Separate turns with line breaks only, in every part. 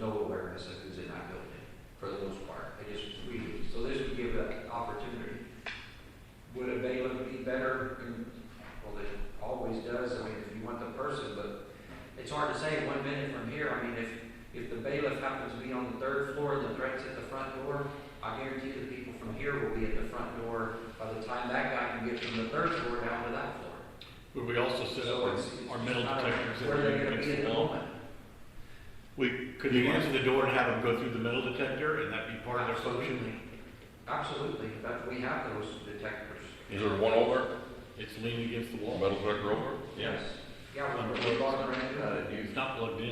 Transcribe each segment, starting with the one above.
no awareness of who's in that building, for the most part. I just, we, so this would give that opportunity. Would a bailiff be better? Mm, Well, it always does, I mean, if you want the person, but it's hard to say one minute from here. I mean, if, if the bailiff happens to be on the third floor, and the threat's at the front door, I guarantee the people from here will be at the front door by the time that guy can get from the third floor down to that floor.
Would we also set up
So
our,
it's- it's
our metal
not a-
detectors that
Where
are
they're gonna
against
be in
the
the
wall?
moment.
We, could you answer the door and have them go through the metal detector and that be part of their function?
Absolutely. Absolutely, but we have those detectors.
Is there one over,
It's leaning against the wall.
metal detector over?
Yeah.
Yeah, we- we bought brand new.
Uh, you
It's not plugged in.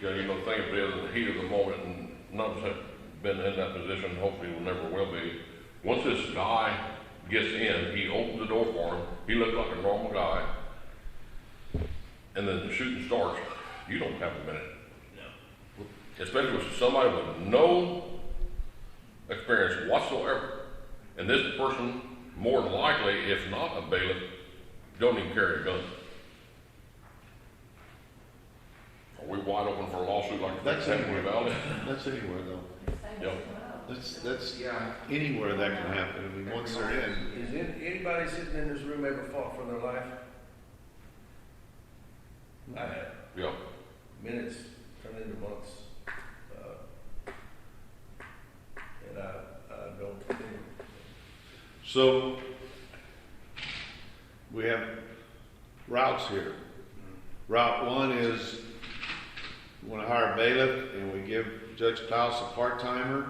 You gotta, you know, think of it as the heat of the moment, and none of us have been in that position, hopefully we never will be. Once this guy gets in, he opens the door for him, he looks like a normal guy, and then the shooting starts, you don't have a minute. Especially with somebody with no experience whatsoever. And this person, more than likely, if not a bailiff, don't even carry a gun. Are we wide open for a lawsuit like that?
That's
Temple
anywhere.
Valley?
That's anywhere though.
Yeah.
That's, that's
Yeah,
anywhere that can happen. I mean, once they're in,
Has an- anybody sitting in this room ever fought for their life? I have.
Yeah,
Minutes turned into months. uh, And I, I don't think,
so we have routes here. Route one is, we wanna hire a bailiff and we give Judge Klaus a part-timer,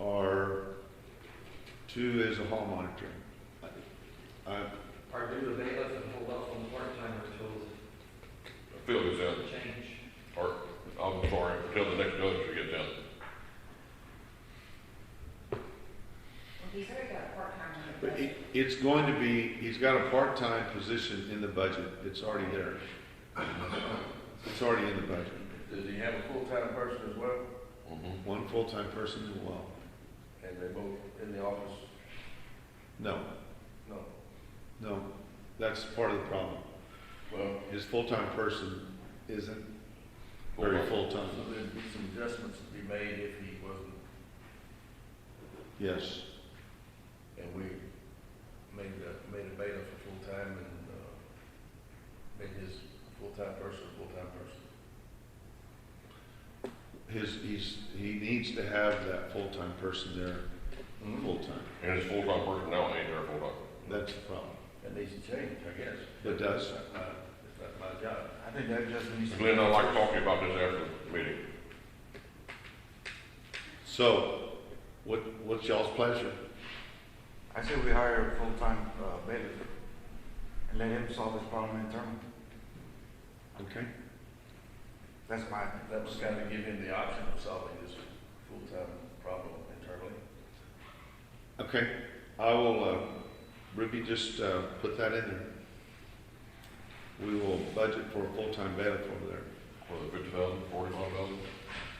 or two is a hall monitor. I- I,
or do the bailiff and hold off on the part-time until
Phil is in,
the change.
or, I'm sorry, until the next judge gets in.
He's already got a part-time. on the
But
budget.
it, it's going to be, he's got a part-time position in the budget, it's already there. It's already in the budget,
does he have a full-time person as well?
Mhm.
one full-time person as well.
And they both in the office?
No,
No.
no, that's part of the problem.
Well,
His full-time person isn't very
so
full-time,
there'd be some adjustments to be made if he wasn't,
yes.
and we made a, made a bailiff a full-time and, uh, made his full-time person a full-time person.
His, he's, he needs to have that full-time person there, full-time,
And his full-time person now ain't there full-time.
that's the problem.
That needs to change, I guess.
It does.
It's not my, it's not my job.
I think that just needs to.
Glenn, I'd like to talk to you about this after the meeting.
So, what, what's y'all's pleasure?
I say we hire a full-time uh, bailiff and let him solve this problem internally.
Okay.
That's my.
That was kind of give him the option of solving this full-time problem internally.
Okay, I will, uh, Ruby, just, uh, put that in there. We will budget for a full-time bailiff over there,
Was it fifty thousand, forty-five thousand?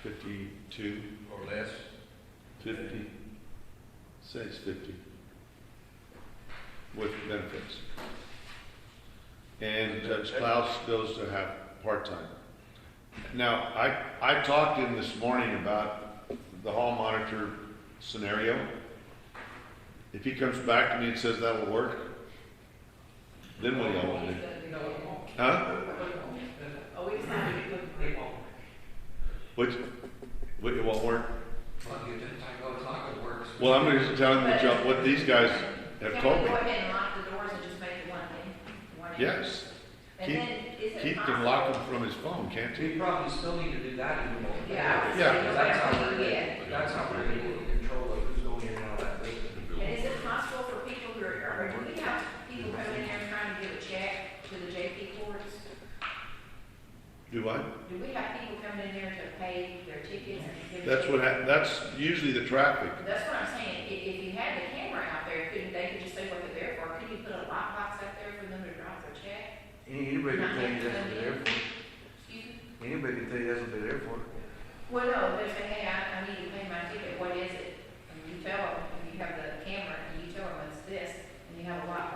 fifty-two,
Or less.
fifty, say it's fifty. With benefits. And Judge Klaus goes to have part-time. Now, I, I talked to him this morning about the hall monitor scenario. If he comes back to me and says that'll work, then what do y'all want to do?
No, it won't.
Huh?
Oh, it's not, it won't.
Which, what, it won't work?
Well, you didn't, I know it's not gonna work. so-
Well, I'm gonna just tell him what y'all, what these guys have
Can
told
we
me.
go ahead and lock the doors and just make it one thing? one entry?
Yes,
And
Keith-
then, is it
Keith can
possible-
lock them from his phone, can't he?
We probably still need to do that in the moment.
Yeah, I would
Yeah.
say no
That's how we're
matter who you get.
gonna, that's how we're gonna get control of who's going in and out of that building.
And is it possible for people who are, or do we have people coming in there trying to give a check to the JP courts?
Do I?
Do we have people coming in there to pay their tickets and give? a
That's
check?
what, hap- that's usually the traffic.
That's what I'm saying, if, if you had the camera out there, couldn't, they could just say what they're there for, couldn't you put a lockbox out there for them to drop their check?
Anybody can tell you that's what they're there for.
Excuse me?
Anybody can tell you that's what they're there for.
Well, no, they say, hey, I, I need to pay my ticket, what is it? And you tell them, and you have the camera, and you tell them it's this, and you have a lockbox